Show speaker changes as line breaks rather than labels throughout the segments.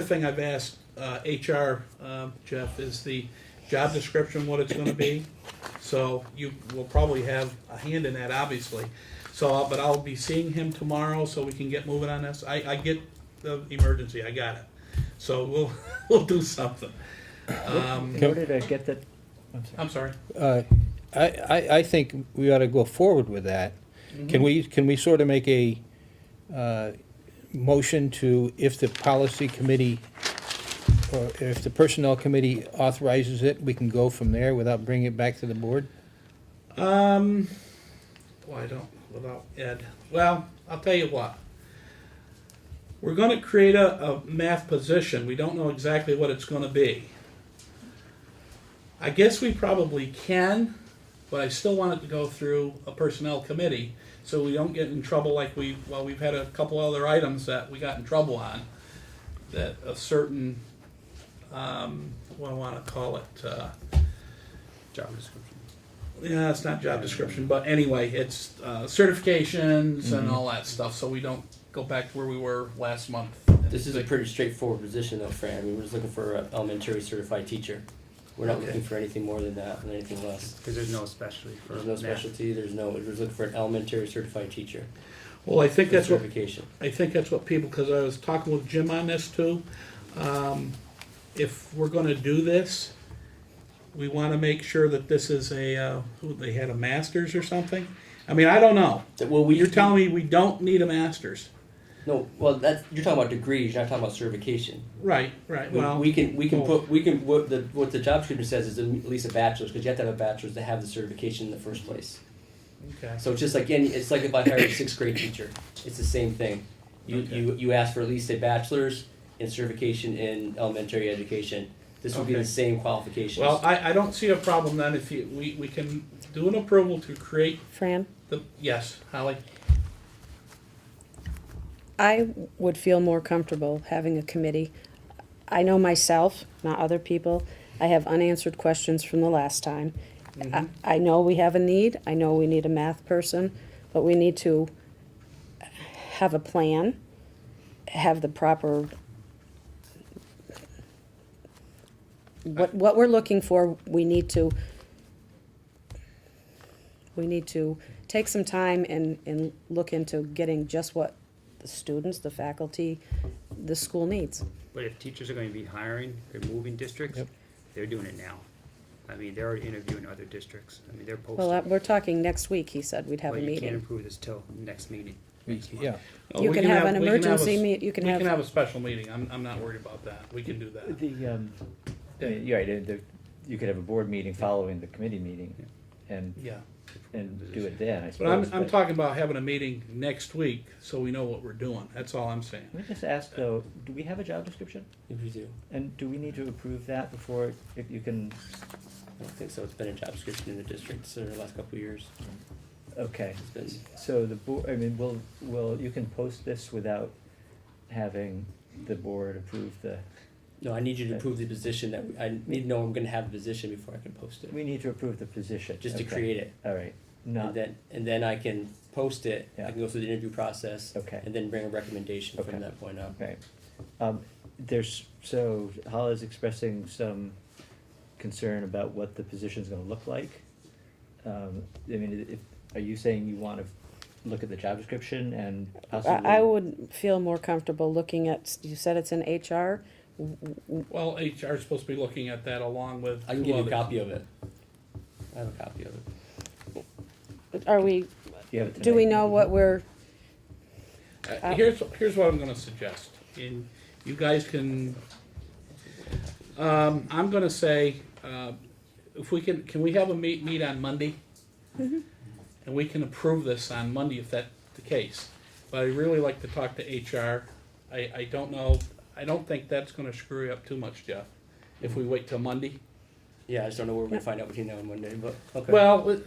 The thing I've asked uh, HR, um, Jeff, is the job description, what it's gonna be. So you will probably have a hand in that, obviously. So, but I'll be seeing him tomorrow so we can get moving on this. I, I get the emergency, I got it. So we'll, we'll do something. Um,
In order to get the,
I'm sorry.
Uh, I, I, I think we ought to go forward with that. Can we, can we sort of make a uh, motion to, if the policy committee, or if the personnel committee authorizes it, we can go from there without bringing it back to the board?
Um, well, I don't, without Ed. Well, I'll tell you what. We're gonna create a, a math position. We don't know exactly what it's gonna be. I guess we probably can, but I still want it to go through a personnel committee, so we don't get in trouble like we, well, we've had a couple other items that we got in trouble on. That a certain, um, what do I wanna call it, uh,
job description.
yeah, it's not job description, but anyway, it's uh, certifications and all that stuff, so we don't go back to where we were last month.
This is a pretty straightforward position though, Fran. I mean, we're just looking for an elementary certified teacher. We're not
Okay.
looking for anything more than that and anything less.
Because there's no specialty for
There's no
math.
specialty, there's no, we're just looking for an elementary certified teacher.
Well, I think
for
that's what
Certification.
I think that's what people, because I was talking with Jim on this too. Um, if we're gonna do this, we wanna make sure that this is a, uh, who, they had a masters or something? I mean, I don't know.
That- Well, we.
You're telling me we don't need a masters?
No, well, that's, you're talking about degrees, you're not talking about certification.
Right, right,
We-
well,
We can, we can
well-
put, we can, what the, what the job description says is at least a bachelor's, because you have to have a bachelor's to have the certification in the first place.
okay.
So it's just like any, it's like if I hired a sixth grade teacher, it's the same thing. You,
Okay.
you, you ask for at least a bachelor's and certification in elementary education. This would be the
Okay.
same qualifications.
Well, I, I don't see a problem then if you, we, we can do an approval to create
Fran,
The, yes, Holly.
I would feel more comfortable having a committee. I know myself, not other people, I have unanswered questions from the last time. I, I know we have a need, I know we need a math person, but we need to have a plan, have the proper what, what we're looking for, we need to we need to take some time and, and look into getting just what the students, the faculty, the school needs.
But if teachers are going to be hiring, they're moving districts,
Yep.
they're doing it now. I mean, they're already interviewing other districts. I mean, they're posting.
Well, uh, we're talking next week, he said, we'd have a
But you can't
meeting.
approve this till next meeting. next month.
Yeah,
You
oh, We
can have an
we can have a s-
emergency meet, you can
We can
have,
have a special meeting, I'm, I'm not worried about that, we can do that.
the, um, uh, you're right, uh, the, you could have a board meeting following the committee meeting and,
Yeah,
and do it then, I
but
suppose.
I'm, I'm talking about having a meeting next week, so we know what we're doing, that's all I'm saying.
Let me just ask though, do we have a job description?
If you do,
And do we need to approve that before, if you can,
I don't think so. It's been a job description in the district for the last couple of years.
okay.
It's been,
So the board, I mean, will, will, you can post this without having the board approve the,
no, I need you to approve the position that, we- I need to know I'm gonna have the position before I can post it.
we need to approve the position.
Just to
okay.
create it.
All right,
And
not,
then, and then I can post it, I
Yeah.
can go through the interview process.
Okay.
And then bring a recommendation
Okay.
from that point on.
Right. Um, there's, so Hala's expressing some concern about what the position's gonna look like. Um, I mean, if, are you saying you wanna look at the job description and possibly?
I I would feel more comfortable looking at, you said it's in HR,
Well, HR is supposed to be looking at that along with
I can
two
give you a
others.
copy of it. I have a copy of it.
are we,
You have it
do we
tonight?
know what we're,
Uh, Here's, here's what I'm gonna suggest, and you guys can, um, I'm gonna say, uh, if we can, can we have a meet, meet on Monday?
Mm-hmm.
And we can approve this on Monday if that's the case, but I'd really like to talk to HR. I, I don't know, I don't think that's gonna screw you up too much, Jeff, if we wait till Monday.
Yeah, I just don't know where we're gonna find out between now and Monday, but, okay.
Well, it-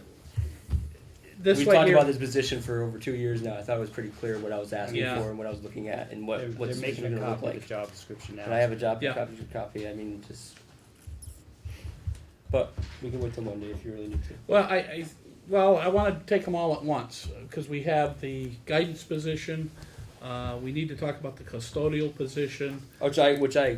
this
We've
way
talked
here-
about this position for over two years now. I thought it was pretty clear what I was asking
Yeah.
for and what I was looking at and what,
They're,
what
they're
the
making
position
a
gonna look
copy of the
like.
job description now.
And I have a job
Yeah.
copy, copy, I mean, just. But we can wait till Monday if you really need to.
Well, I, I, uh, well, I wanna take them all at once, cause we have the guidance position, Uh, we need to talk about the custodial position.
Which I, which I